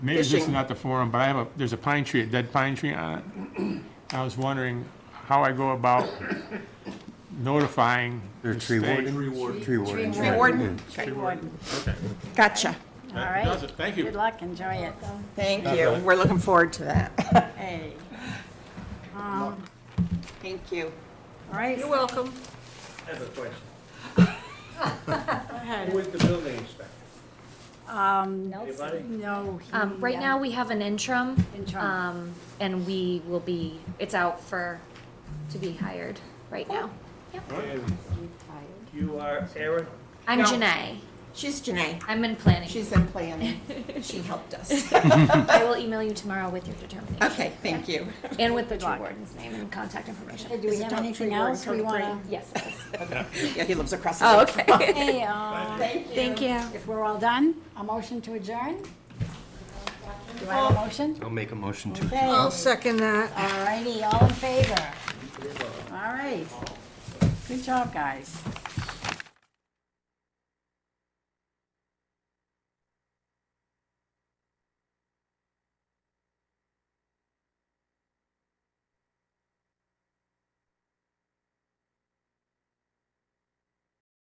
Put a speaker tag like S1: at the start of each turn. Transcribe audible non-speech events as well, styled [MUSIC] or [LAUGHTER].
S1: Maybe this is
S2: fishing.
S1: not the forum, but I have a, there's a pine tree, a dead pine tree on it. I was wondering how I go about notifying
S3: They're
S1: the
S3: tree
S1: state.
S3: warden?
S1: It
S3: Tree warden.
S2: Tree warden? Okay. Gotcha.
S4: All right.
S1: does it. Thank you.
S4: Good luck, enjoy it.
S2: Thank you. We're looking forward to that. [LAUGHS]
S4: Hey.
S2: Thank you.
S4: All right.
S2: You're welcome.
S5: I have a question.
S4: go ahead.
S5: Who is the building inspector?
S4: Um,
S5: Anybody?
S4: Nelson, no. he,
S6: Um, right
S4: uh,
S6: now, we have an interim.
S4: Interim.
S6: Um, and we will be, it's out for, to be hired right now.
S5: And you are Aaron?
S6: I'm
S2: No.
S6: Janae.
S2: She's Janae.
S6: I'm in planning.
S2: She's in planning. [LAUGHS] She helped us.
S6: I will email you tomorrow with your determination.
S2: Okay, thank you. [LAUGHS]
S6: And with the tree
S4: luck.
S6: warden's name and contact
S4: Hey,
S6: information.
S4: Do we
S2: Is it
S4: have
S2: Dr.
S4: anything
S2: Warren,
S4: else we
S2: Code
S4: want to?
S6: Yes. it is.
S2: Yeah, he lives across. Oh, okay.
S4: Hey, uh,
S6: Thank you.
S4: if we're all done, a motion to adjourn? Do I have a motion?
S3: I'll make a motion to
S4: Okay, all
S7: Second that.
S4: righty, all in favor? All right. Good job, guys.